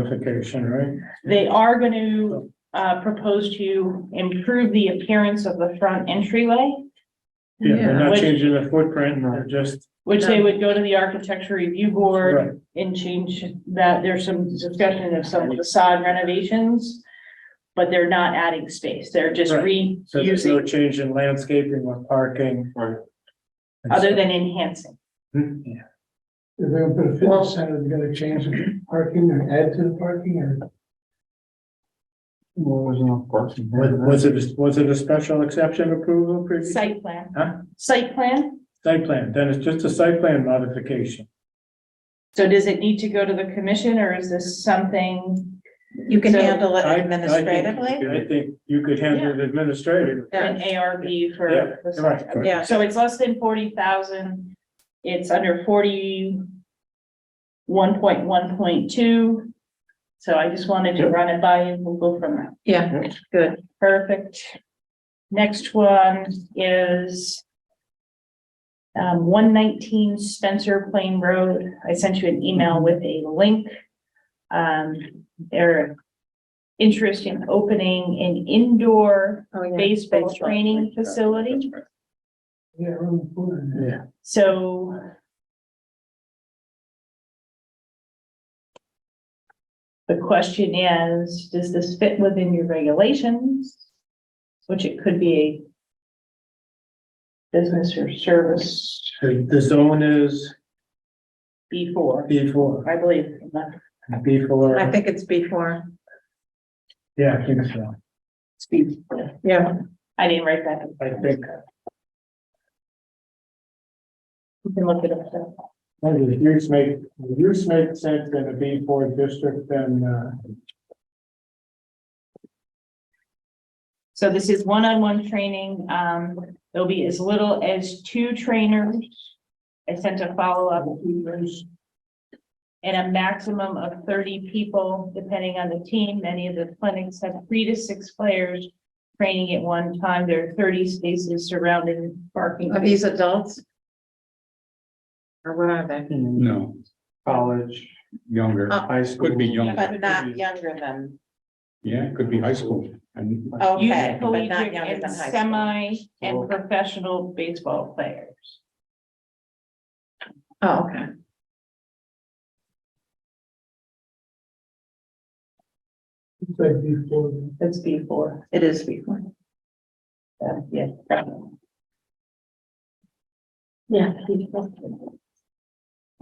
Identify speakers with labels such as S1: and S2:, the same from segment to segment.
S1: modification, right?
S2: They are going to uh, propose to improve the appearance of the front entryway,
S1: Yeah, they're
S2: Yeah.
S1: not changing the footprint, they're just,
S2: which they would go to the architecture review board
S1: right,
S2: and change that. There's some discussion of some facade renovations, but they're not adding space. They're just
S1: so there's no
S2: reusing,
S1: change in landscaping or parking or.
S2: other than enhancing.
S1: than. Yeah,
S3: If they're gonna put a fitness center, they're gonna change the parking or add to the parking or?
S4: Well, there's enough parking.
S1: was, was it, was it a special exception approval previous?
S2: Site plan.
S1: Huh?
S2: Site plan.
S1: Site plan, then it's just a site plan modification.
S2: So does it need to go to the commission or is this something?
S5: You can
S2: So-
S5: handle it
S1: I- I think-
S5: administratively?
S1: I think you could handle it administratively.
S5: Yeah.
S2: An ARB
S1: Yeah,
S2: for. the site
S1: right.
S2: plan?
S5: Yeah.
S2: So it's less than forty thousand, it's under forty one point one point two. So I just wanted to
S4: Yep.
S2: run it by you, we'll go from there.
S5: Yeah, good.
S2: Perfect. Next one is um, one nineteen Spencer Plain Road. I sent you an email with a link. Um, their interest in opening an indoor
S5: Oh, yeah.
S2: baseball training facility,
S3: Yeah, room for it.
S1: Yeah,
S2: so. The question is, does this fit within your regulations? Which it could be a business or service
S1: so the zone is
S2: before,
S1: B four,
S2: I believe. I'm not-
S1: B four,
S5: I think it's before,
S1: yeah, I think so,
S2: it's before.
S5: yeah.
S2: I didn't write that.
S1: I think.
S2: You can look it up. though.
S1: Maybe the use make, the use make sense in a B four district then, uh,
S2: So this is one-on-one training. Um, there'll be as little as two trainers. I sent a follow-up and a maximum of thirty people, depending on the team. Many of the clinics have three to six players training at one time. There are thirty spaces surrounding parking.
S5: Are these adults? Or what are they?
S4: No,
S1: college.
S4: younger,
S5: Uh,
S4: high school. Could be younger,
S5: But not younger than,
S4: yeah, it could be high school.
S3: uh,
S4: And
S5: okay,
S2: Youth,
S5: but not
S2: collegiate,
S5: younger
S2: and
S5: than high school.
S2: semi and professional baseball players.
S5: Oh, okay.
S3: It's like before.
S2: That's before,
S5: It is before.
S2: uh, yeah. probably. Yeah. before.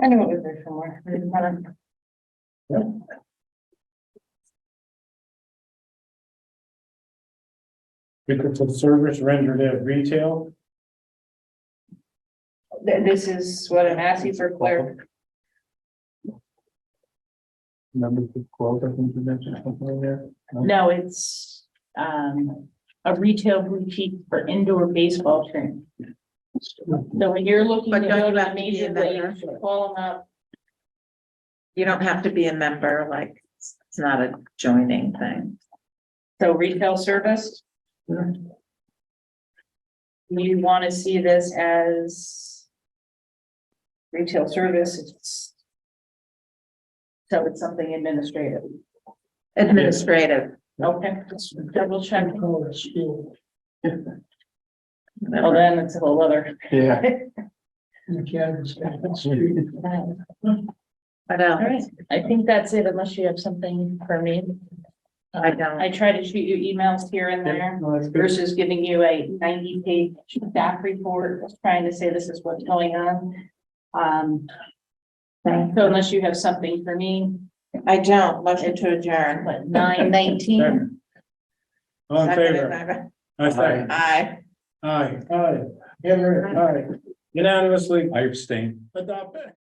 S2: I know it was there somewhere. I didn't wanna-
S1: Because of service rendered at retail,
S2: Th- This is what I'm asking for clarif-
S4: number twelve, I think you mentioned something in there.
S2: No, it's, um, a retail boutique for indoor baseball training. So when you're looking to
S5: But don't
S2: go
S5: you
S2: to
S5: have to be
S2: major
S5: in that
S2: leagues, you're calling up,
S5: You don't have to be a member, like, it's it's not a joining thing.
S2: so retail service. You wanna see this as retail service, it's so it's something administrative,
S5: Administrative,
S2: okay, double check,
S3: They call it school.
S2: well, then it's a whole other.
S4: Yeah.
S3: You can't understand.
S5: what else?
S2: All right, I think that's it unless you have something for me.
S5: I don't.
S2: I try to shoot you emails here and there
S1: no, that's good.
S2: versus giving you a ninety page staff report, trying to say this is what's going on. Um, so unless you have something for me,
S5: I don't, motion to adjourn.
S2: what, nine nineteen?
S1: All in favor? I say,
S5: Aye.
S1: aye, aye, aye, unanimously
S4: I abstain.
S1: adopted.